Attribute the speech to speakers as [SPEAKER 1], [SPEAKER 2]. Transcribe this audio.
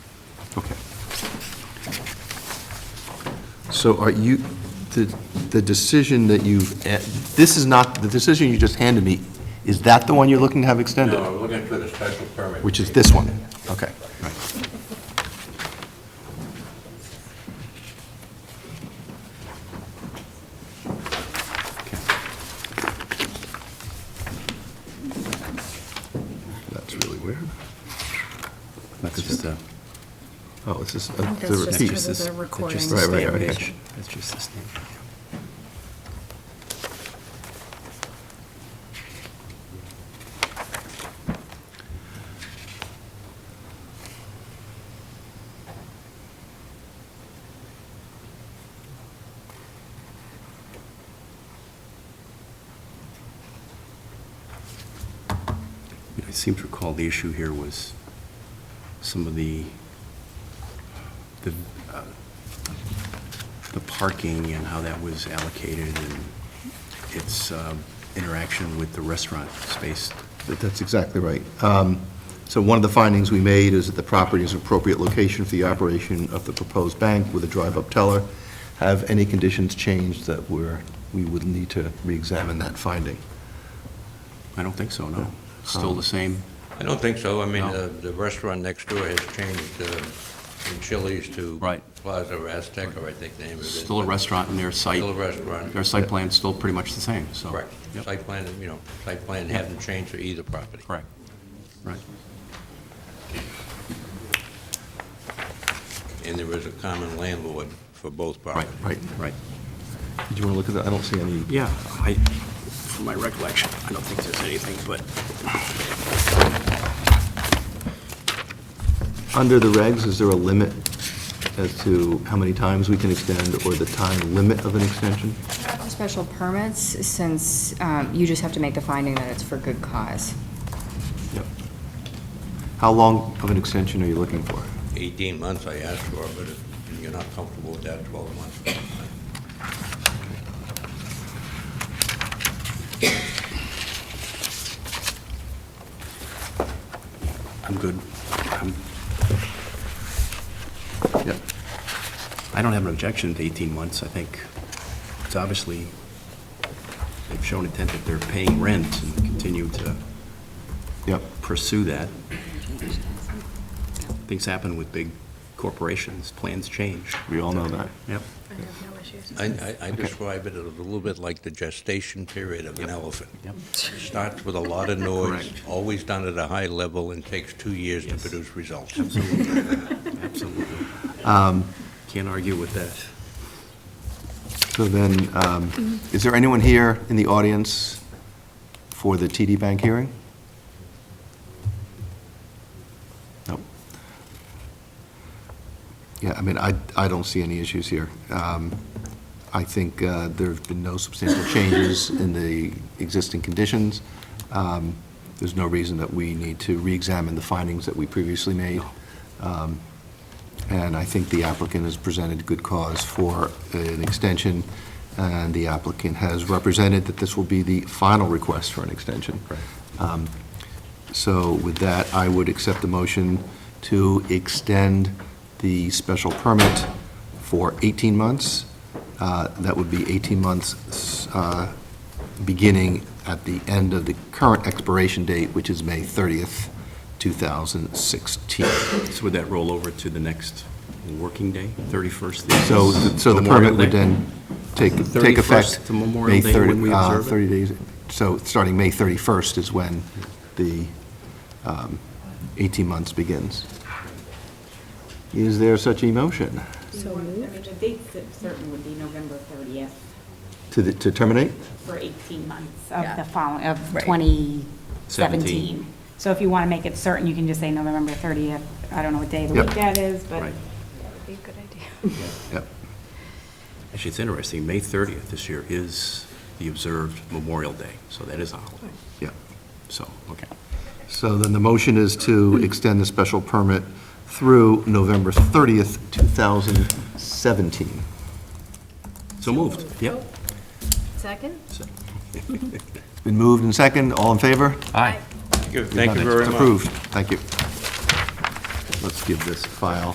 [SPEAKER 1] Okay. So are you, the, the decision that you've, eh, this is not, the decision you just handed me, is that the one you're looking to have extended?
[SPEAKER 2] No, we're looking for the special permit.
[SPEAKER 1] Which is this one? Okay. That's really weird.
[SPEAKER 3] That's just a,
[SPEAKER 1] Oh, this is uh,
[SPEAKER 4] That's
[SPEAKER 1] the
[SPEAKER 4] just
[SPEAKER 3] that's
[SPEAKER 1] repeat.
[SPEAKER 3] just
[SPEAKER 4] the
[SPEAKER 3] this- that's
[SPEAKER 4] recording
[SPEAKER 3] just the
[SPEAKER 1] Right, right,
[SPEAKER 3] stamp
[SPEAKER 1] okay.
[SPEAKER 3] page. That's just the stamp. I seem to recall the issue here was some of the, the, uh, the parking and how that was allocated and its um, interaction with the restaurant space.
[SPEAKER 1] That- That's exactly right. Um, So one of the findings we made is that the property is an appropriate location for the operation of the proposed bank with a drive-up teller. Have any conditions changed that were, we would need to re-examine that finding?
[SPEAKER 3] I don't think so, no. Still the same,
[SPEAKER 2] I don't think so. I mean, the
[SPEAKER 3] No.
[SPEAKER 2] the restaurant next door has changed uh, from Chili's to
[SPEAKER 3] Right.
[SPEAKER 2] Plaza Azteca, I think the name of it is.
[SPEAKER 3] still a restaurant and their site,
[SPEAKER 2] Still a restaurant.
[SPEAKER 3] their site plan's still pretty much the same, so.
[SPEAKER 2] Correct.
[SPEAKER 3] Yep.
[SPEAKER 2] Site plan, you know, site plan hasn't changed for either property.
[SPEAKER 3] Correct. Right.
[SPEAKER 2] And there is a common landlord for both
[SPEAKER 3] Right,
[SPEAKER 2] properties.
[SPEAKER 3] right, right.
[SPEAKER 1] Did you want to look at that? I don't see any.
[SPEAKER 3] Yeah, I, from my recollection, I don't think there's anything, but
[SPEAKER 1] Under the regs, is there a limit as to how many times we can extend or the time limit of an extension?
[SPEAKER 5] Special permits, since um, you just have to make the finding that it's for good cause.
[SPEAKER 1] Yep. How long of an extension are you looking for?
[SPEAKER 2] 18 months I asked for, but if you're not comfortable with that, 12 months.
[SPEAKER 3] I'm good. I'm-
[SPEAKER 1] Yep.
[SPEAKER 3] I don't have an objection to 18 months, I think. It's obviously, they've shown intent that they're paying rent and continue to
[SPEAKER 1] Yep.
[SPEAKER 3] pursue that. Things happen with big corporations, plans change.
[SPEAKER 1] We all know that.
[SPEAKER 3] Yep.
[SPEAKER 4] I have no issues.
[SPEAKER 2] I- I I describe it as a little bit like the gestation period of an elephant.
[SPEAKER 3] Yep.
[SPEAKER 2] Starts with a lot of noise,
[SPEAKER 3] Correct.
[SPEAKER 2] always done at a high level, and takes two years to
[SPEAKER 3] Yes.
[SPEAKER 2] produce results.
[SPEAKER 3] Absolutely. Um, Can't argue with that.
[SPEAKER 1] So then, um, is there anyone here in the audience for the TD Bank hearing? No. Yeah, I mean, I, I don't see any issues here. Um, I think uh, there have been no substantial changes in the existing conditions. Um, There's no reason that we need to re-examine the findings that we previously made. Um, and I think the applicant has presented good cause for an extension, and the applicant has represented that this will be the final request for an extension. Um, So with that, I would accept the motion to extend the special permit for 18 months. Uh, That would be 18 months, uh, beginning at the end of the current expiration date, which is May 30th, 2016.
[SPEAKER 3] So would that roll over to the next working day, 31st? is
[SPEAKER 1] So, th- so the
[SPEAKER 3] Memorial
[SPEAKER 1] permit would
[SPEAKER 3] Day?
[SPEAKER 1] then take,
[SPEAKER 3] The
[SPEAKER 1] take
[SPEAKER 3] 31st
[SPEAKER 1] effect.
[SPEAKER 3] to Memorial
[SPEAKER 1] May
[SPEAKER 3] Day when
[SPEAKER 1] 30
[SPEAKER 3] we
[SPEAKER 1] uh,
[SPEAKER 3] observe it?
[SPEAKER 1] 30 days, so starting May 31st is when the um, 18 months begins. Is there such a motion
[SPEAKER 6] So, I mean, the date cer- certain would be November 30th
[SPEAKER 1] to, the- to terminate?
[SPEAKER 6] for 18 months of
[SPEAKER 5] Yeah.
[SPEAKER 6] the following, of
[SPEAKER 5] Right.
[SPEAKER 6] 2017. So if you want to make it certain, you can just say November 30th. I don't know what day of the
[SPEAKER 1] Yep.
[SPEAKER 6] week that is, but
[SPEAKER 3] Right.
[SPEAKER 4] That'd be a good idea.
[SPEAKER 1] Yep.
[SPEAKER 3] Actually, it's interesting, May 30th this year is the observed Memorial Day, so that is a holiday.
[SPEAKER 1] Yep.
[SPEAKER 3] So, okay.
[SPEAKER 1] So then the motion is to extend the special permit through November 30th, 2017.
[SPEAKER 3] So moved, yep.
[SPEAKER 4] Second?
[SPEAKER 3] So-
[SPEAKER 1] It's been moved and second, all in favor?
[SPEAKER 3] Aye.
[SPEAKER 2] Thank you very much.
[SPEAKER 1] Approved, thank you. Let's give this file